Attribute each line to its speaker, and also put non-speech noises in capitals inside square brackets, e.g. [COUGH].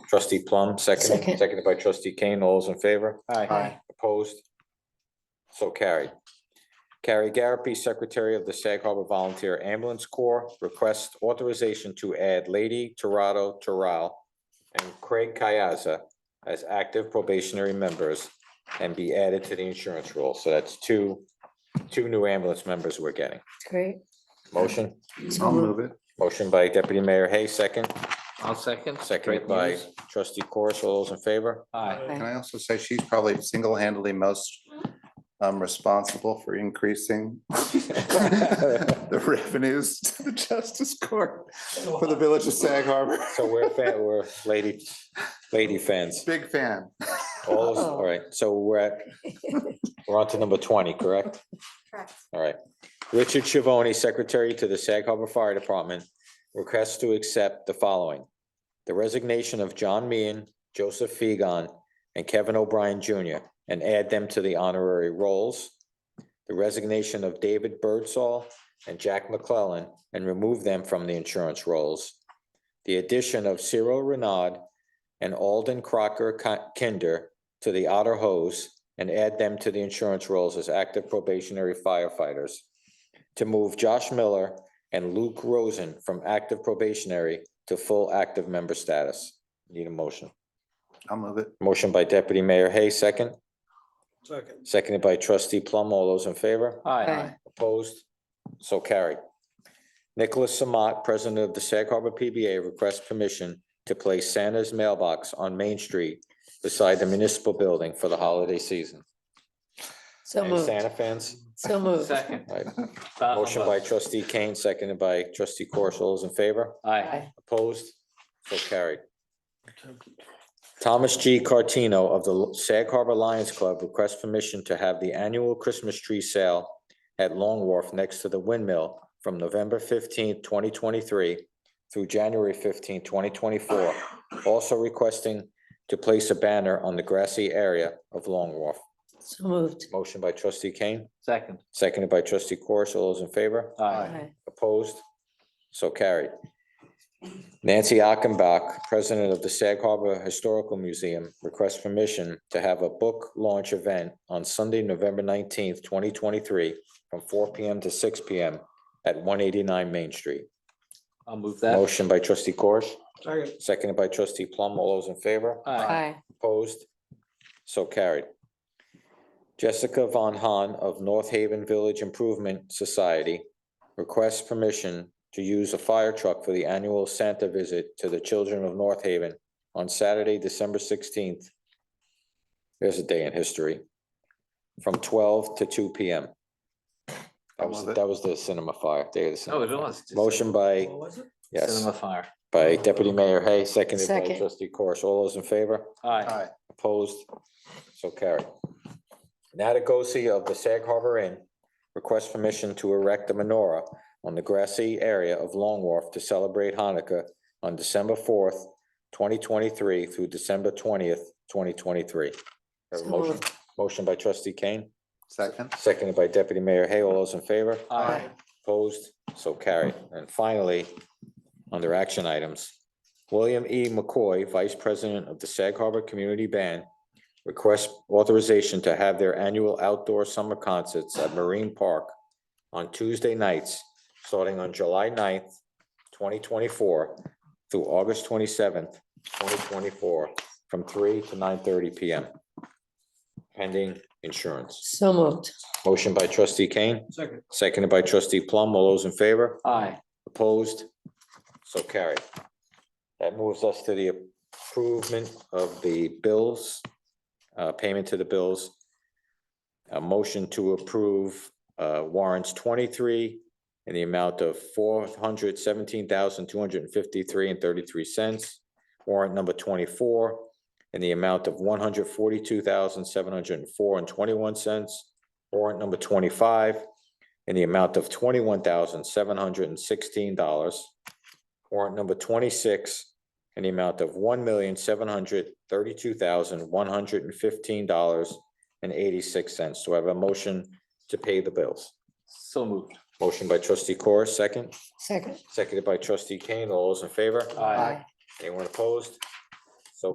Speaker 1: Trustee Plum, second,
Speaker 2: Second.
Speaker 1: seconded by trustee Kane. All those in favor?
Speaker 2: Aye.
Speaker 1: Opposed? So carried. Carrie Garapi, Secretary of the Sag Harbor Volunteer Ambulance Corps, requests authorization to add Lady Torado Terrell and Craig Kayaza as active probationary members and be added to the insurance roll. So that's two, two new ambulance members we're getting.
Speaker 2: Great.
Speaker 1: Motion,
Speaker 2: So
Speaker 3: I'll
Speaker 2: moved.
Speaker 3: move it.
Speaker 1: motion by Deputy Mayor Hay, second,
Speaker 4: I'll second.
Speaker 1: seconded
Speaker 4: Great
Speaker 1: by
Speaker 4: news.
Speaker 1: trustee Corus. All those in favor?
Speaker 4: Aye.
Speaker 3: Can I also say she's probably single-handedly most um, responsible for increasing [LAUGHS] the revenues to the Justice Court for the Village of Sag Harbor.
Speaker 1: So we're, fa- we're lady, lady fans.
Speaker 3: Big fan.
Speaker 1: All, those- all
Speaker 2: Uh-oh.
Speaker 1: right, so we're at, we're on to number twenty, correct?
Speaker 5: Correct.
Speaker 1: All right. Richard Chivoni, Secretary to the Sag Harbor Fire Department, requests to accept the following. The resignation of John Meehan, Joseph Fegan, and Kevin O'Brien Jr., and add them to the honorary rolls. The resignation of David Birdsall and Jack McClellan, and remove them from the insurance rolls. The addition of Cyril Renaud and Alden Crocker Ki- Kinder to the Otter Hose and add them to the insurance rolls as active probationary firefighters. To move Josh Miller and Luke Rosen from active probationary to full active member status. Need a motion.
Speaker 3: I'll move it.
Speaker 1: Motion by Deputy Mayor Hay, second.
Speaker 6: Second.
Speaker 1: Seconded by Trustee Plum. All those in favor?
Speaker 4: Aye.
Speaker 2: Aye.
Speaker 1: Opposed? So carried. Nicholas Samat, President of the Sag Harbor PBA, requests permission to place Santa's mailbox on Main Street beside the municipal building for the holiday season.
Speaker 2: So
Speaker 1: Any
Speaker 2: moved.
Speaker 1: Santa fans?
Speaker 2: So moved.
Speaker 4: Second.
Speaker 1: All right.
Speaker 4: Thought
Speaker 1: Motion by
Speaker 4: about-
Speaker 1: trustee Kane, seconded by trustee Corso. All those in favor?
Speaker 4: Aye.
Speaker 2: Aye.
Speaker 1: Opposed? So carried. Thomas G. Cartino of the Sag Harbor Lions Club requests permission to have the annual Christmas tree sale at Long Wharf next to the windmill from November fifteenth, twenty twenty-three through January fifteenth, twenty twenty-four, also requesting to place a banner on the grassy area of Long Wharf.
Speaker 2: So moved.
Speaker 1: Motion by trustee Kane,
Speaker 4: Second.
Speaker 1: seconded by trustee Corso. All those in favor?
Speaker 4: Aye.
Speaker 1: Opposed? So carried. Nancy Achenbach, President of the Sag Harbor Historical Museum, requests permission to have a book launch event on Sunday, November nineteenth, twenty twenty-three, from four P M. to six P M. at one eighty-nine Main Street.
Speaker 4: I'll move that.
Speaker 1: Motion by trustee Corish,
Speaker 6: Second.
Speaker 1: seconded by trustee Plum. All those in favor?
Speaker 4: Aye.
Speaker 2: Aye.
Speaker 1: Opposed? So carried. Jessica Von Hahn of North Haven Village Improvement Society requests permission to use a fire truck for the annual Santa visit to the children of North Haven on Saturday, December sixteenth. There's a day in history, from twelve to two P M. That was,
Speaker 3: Love it.
Speaker 1: that was the cinema fire, day of the
Speaker 4: Oh,
Speaker 1: cinema.
Speaker 4: it was.
Speaker 1: Motion by,
Speaker 6: What was it?
Speaker 1: yes,
Speaker 4: Cinema fire.
Speaker 1: by Deputy Mayor Hay, seconded by
Speaker 2: Second.
Speaker 1: trustee Corish. All those in favor?
Speaker 4: Aye.
Speaker 3: Aye.
Speaker 1: Opposed? So carried. Natagosi of the Sag Harbor Inn requests permission to erect a menorah on the grassy area of Long Wharf to celebrate Hanukkah on December fourth, twenty twenty-three through December twentieth, twenty twenty-three.
Speaker 2: So
Speaker 1: Motion,
Speaker 2: moved.
Speaker 1: motion by trustee Kane,
Speaker 3: Second.
Speaker 1: seconded by deputy mayor Hay. All those in favor?
Speaker 4: Aye.
Speaker 1: Opposed, so carried. And finally, under action items, William E. McCoy, Vice President of the Sag Harbor Community Band, requests authorization to have their annual outdoor summer concerts at Marine Park on Tuesday nights, starting on July 9th, twenty twenty-four through August twenty-seventh, twenty twenty-four, from three to nine thirty P M. Pending insurance.
Speaker 2: So moved.
Speaker 1: Motion by trustee Kane.
Speaker 6: Second.
Speaker 1: Seconded by trustee Plum. All those in favor?
Speaker 4: Aye.
Speaker 1: Opposed? So carried. That moves us to the improvement of the bills, uh, payment to the bills. A motion to approve, uh, warrants twenty-three in the amount of four hundred seventeen thousand, two hundred and fifty-three and thirty-three cents. Warrant number twenty-four in the amount of one hundred forty-two thousand, seven hundred and four and twenty-one cents. Warrant number twenty-five in the amount of twenty-one thousand, seven hundred and sixteen dollars. Warrant number twenty-six in the amount of one million, seven hundred, thirty-two thousand, one hundred and fifteen dollars and eighty-six cents. Do I have a motion to pay the bills?
Speaker 4: So moved.
Speaker 1: Motion by trustee Corr, second,
Speaker 2: Second.
Speaker 1: seconded by trustee Kane. All those in favor?
Speaker 4: Aye.
Speaker 1: Anyone opposed?